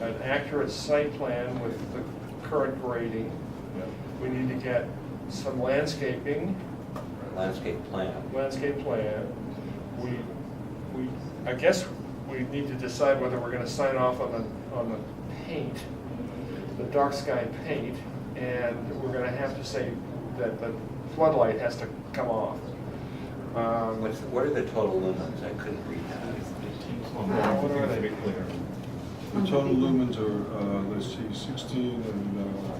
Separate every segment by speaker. Speaker 1: an accurate site plan with the current grading. We need to get some landscaping,
Speaker 2: landscape plan.
Speaker 1: landscape plan. We, we, I guess we need to decide whether we're gonna sign off on the, on the paint, the dark sky paint, and we're gonna have to say that the floodlight has to come off. Um,
Speaker 2: What's, what are the total lumens? I couldn't read that.
Speaker 1: What are they?
Speaker 3: The total lumens are, uh, let's see, sixteen and, uh,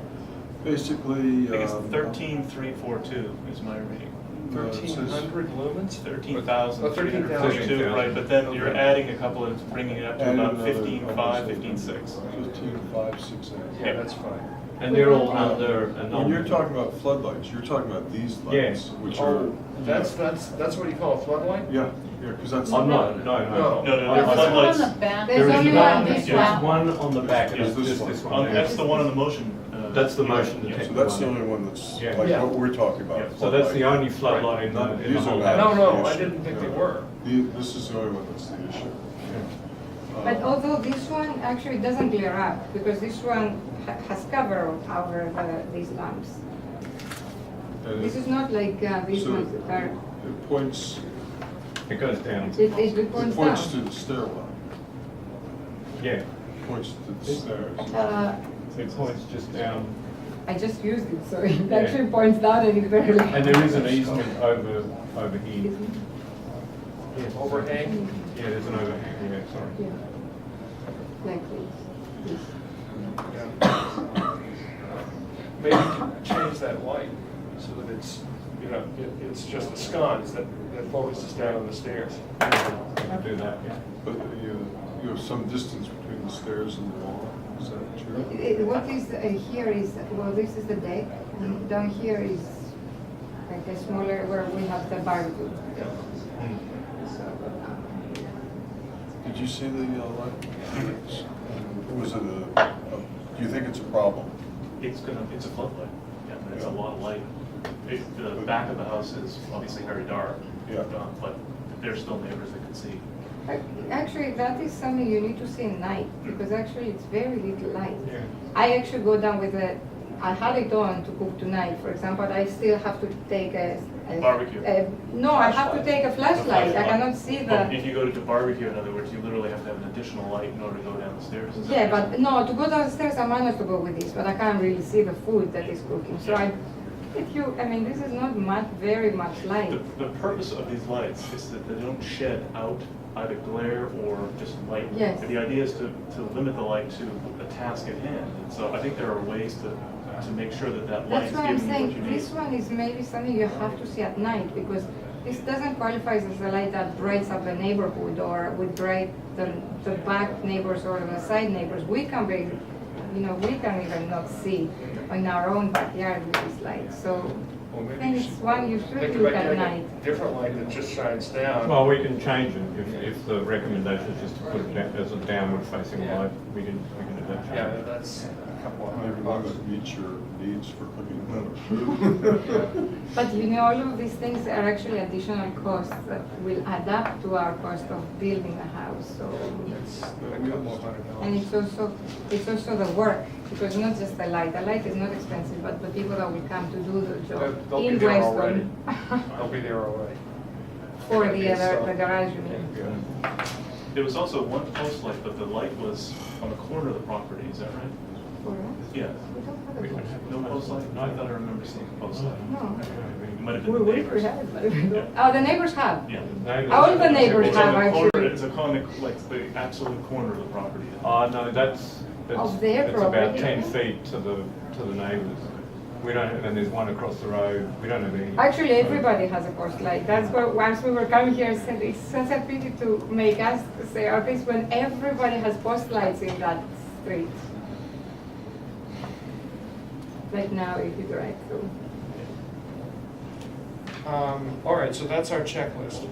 Speaker 3: basically.
Speaker 4: I think it's
Speaker 3: um,
Speaker 4: thirteen three four two is my reading.
Speaker 3: uh, it says-
Speaker 1: Thirteen hundred lumens?
Speaker 4: It's thirteen thousand three hundred forty-two,
Speaker 1: 13,000.
Speaker 4: right, but then you're
Speaker 1: Oh, Okay.
Speaker 4: adding a couple and it's bringing it up to
Speaker 3: Add
Speaker 4: about
Speaker 3: another-
Speaker 4: fifteen five, fifteen six.
Speaker 3: uh, Fifteen, five, six, eight.
Speaker 1: Yeah, that's fine.
Speaker 5: And they're all under a
Speaker 3: When you're
Speaker 5: number.
Speaker 3: talking about floodlights, you're talking about these lights,
Speaker 5: Yeah.
Speaker 3: which are.
Speaker 1: Oh, that's, that's, that's what you call a floodlight?
Speaker 3: Yeah, yeah, because that's.
Speaker 5: Oh, no, no,
Speaker 1: No.
Speaker 5: no.
Speaker 4: No, no,
Speaker 5: There's
Speaker 4: no,
Speaker 5: one
Speaker 4: floodlights,
Speaker 5: There is
Speaker 6: There's only one
Speaker 5: one,
Speaker 6: this
Speaker 5: there's
Speaker 4: yeah.
Speaker 6: one.
Speaker 5: one on the back,
Speaker 4: Yeah.
Speaker 5: it's just this
Speaker 4: Oh,
Speaker 5: one
Speaker 4: that's
Speaker 5: there.
Speaker 4: the one on the motion. uh,
Speaker 5: That's the motion to
Speaker 4: yeah.
Speaker 5: take.
Speaker 3: So that's the only one that's
Speaker 5: Yeah.
Speaker 3: like
Speaker 1: Yeah.
Speaker 3: what we're talking
Speaker 4: Yeah.
Speaker 3: about.
Speaker 5: So that's the
Speaker 3: floodlight.
Speaker 5: only floodlight in the,
Speaker 3: None-
Speaker 5: in the
Speaker 3: These are
Speaker 5: whole
Speaker 3: not.
Speaker 5: house.
Speaker 1: No, no,
Speaker 3: the
Speaker 1: I
Speaker 3: issue.
Speaker 1: didn't think they
Speaker 3: Yeah.
Speaker 1: were.
Speaker 3: The- This is the only one that's the issue. Uh,
Speaker 6: But although this one actually doesn't glare up, because this one ha- has cover over the, these lamps.
Speaker 3: And
Speaker 6: This is
Speaker 3: it-
Speaker 6: not like uh, these
Speaker 3: so
Speaker 6: ones that are,
Speaker 3: It points,
Speaker 5: It goes down,
Speaker 6: it, it
Speaker 3: it
Speaker 6: points
Speaker 3: points to
Speaker 6: down.
Speaker 3: the stairwell,
Speaker 5: yeah.
Speaker 3: It points to the stairs.
Speaker 6: Uh,
Speaker 5: It points just down,
Speaker 6: I just used it, so it
Speaker 5: Yeah.
Speaker 6: actually points down and it barely.
Speaker 5: and there is an easement over, over here. Yeah.
Speaker 1: Overhang?
Speaker 5: Yeah, there's an overhang, yeah, sorry.
Speaker 6: Yeah. Like this. This.
Speaker 1: Maybe change that light so that it's, you know, it- it's just the sconce that, that focuses down on the stairs.
Speaker 5: I'll do that, yeah.
Speaker 3: But uh, you, you have some distance between the stairs and the wall, is that true?
Speaker 6: Eh, eh, What is uh, here is, well, this is the deck, and down here is like a smaller where we have the barbecue.
Speaker 5: Hmm.
Speaker 3: Did you see the uh, light? Was it a, a- do you think it's a problem?
Speaker 4: It's gonna, it's a floodlight, yeah, but it's a lot of light. It- The back of the house is obviously very dark.
Speaker 3: Yeah.
Speaker 4: uh, But there's still neighbors that can see.
Speaker 6: Ac- Actually, that is something you need to see at night, because actually it's very little light.
Speaker 5: Yeah.
Speaker 6: I actually go down with a, I had it on to cook tonight, for example, I still have to take a. a-
Speaker 4: Barbecue.
Speaker 6: a- No, I have to take a flashlight, I cannot see
Speaker 4: But If
Speaker 6: the,
Speaker 4: you go to the barbecue, in other words, you literally have to have an additional light in order to go down the stairs. is that
Speaker 6: yeah,
Speaker 4: right?
Speaker 6: but no, to go downstairs, I managed to go with this, but I can't really see the food that is cooking, so I, if you, I mean, this is not much, very much light.
Speaker 4: The, the purpose of these lights is that they don't shed out either glare or just light.
Speaker 6: Yes.
Speaker 4: The idea is to, to limit the light to a task at hand. And so I think there are ways to, to make sure that that
Speaker 6: That's
Speaker 4: light is
Speaker 6: why I'm
Speaker 4: giving you what you
Speaker 6: saying,
Speaker 4: need.
Speaker 6: this one is maybe something you have to see at night, because this doesn't qualify as a light that brights up the neighborhood or would bright the, the back neighbors or the side neighbors. We can be, you know, we can even not see in our own backyard with this light, so
Speaker 1: Or
Speaker 6: I
Speaker 1: maybe
Speaker 6: think
Speaker 1: you
Speaker 6: it's
Speaker 1: should
Speaker 6: one you
Speaker 1: think
Speaker 6: should look
Speaker 1: about
Speaker 6: at
Speaker 1: getting a
Speaker 6: night.
Speaker 1: Different light that just shines down.
Speaker 5: Well, we can change it, if, if the recommendation is just to put it down, as a downward facing
Speaker 1: Yeah.
Speaker 5: light, we can, we can adapt.
Speaker 1: Yeah, that's a couple of
Speaker 3: Maybe
Speaker 1: hundred
Speaker 3: one
Speaker 1: bucks.
Speaker 3: that meets your needs for cooking better.
Speaker 6: But you know, all of these things are actually additional costs that will add up to our cost of building a house, so.
Speaker 1: It's a couple of hundred
Speaker 6: And
Speaker 1: dollars.
Speaker 6: it's also, it's also the work, because not just the light, the light is not expensive, but the people that will come to do the
Speaker 1: They'll-
Speaker 6: job
Speaker 1: they'll be
Speaker 6: in
Speaker 1: there
Speaker 6: Weston.
Speaker 1: I'll be there all right.
Speaker 6: For the other, the
Speaker 1: It's, uh,
Speaker 6: garage, you mean.
Speaker 1: yeah.
Speaker 4: There was also one post light, but the light was on the corner of the property, is that right?
Speaker 6: For us?
Speaker 4: Yeah.
Speaker 6: We don't have a garage.
Speaker 4: No post light? No, I thought I remember seeing a post light.
Speaker 6: No.
Speaker 4: It might have
Speaker 6: We
Speaker 4: been
Speaker 6: we
Speaker 4: the
Speaker 6: could
Speaker 4: neighbors.
Speaker 6: have it, but we don't. Oh, the neighbors have.
Speaker 4: Yeah.
Speaker 6: All the neighbors
Speaker 4: It's
Speaker 6: have
Speaker 4: on the corner-
Speaker 6: actually.
Speaker 4: It's a corner, like the absolute corner of the property.
Speaker 5: Oh, no, that's, that's,
Speaker 6: Of their
Speaker 5: it's about
Speaker 6: property.
Speaker 5: ten feet to the, to the neighbours. We don't, and there's one across the road, we don't have any.
Speaker 6: Actually, everybody has a course light. That's why once we were coming here, I said, it's such a pity to make us say all this when everybody has post lights in that street. Like now, if you drive through.
Speaker 1: Um, all right, so that's our checklist.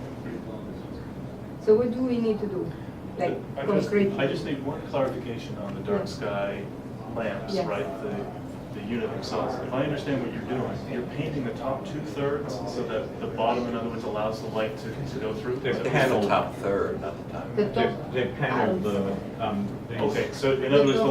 Speaker 6: So what do we need to do? Like
Speaker 4: I just-
Speaker 6: concrete?
Speaker 4: I just need one clarification on the dark sky lamps,
Speaker 6: Yes.
Speaker 4: right? The, the unit themselves. If I understand what you're doing, you're painting the top two-thirds so that the bottom, in other words, allows the light to, to go through?
Speaker 5: They're
Speaker 4: So-
Speaker 5: paneled.
Speaker 2: Top third, not the top.
Speaker 6: The
Speaker 5: They
Speaker 6: top
Speaker 5: they panelled the, um, these.
Speaker 4: Okay, so in other words, the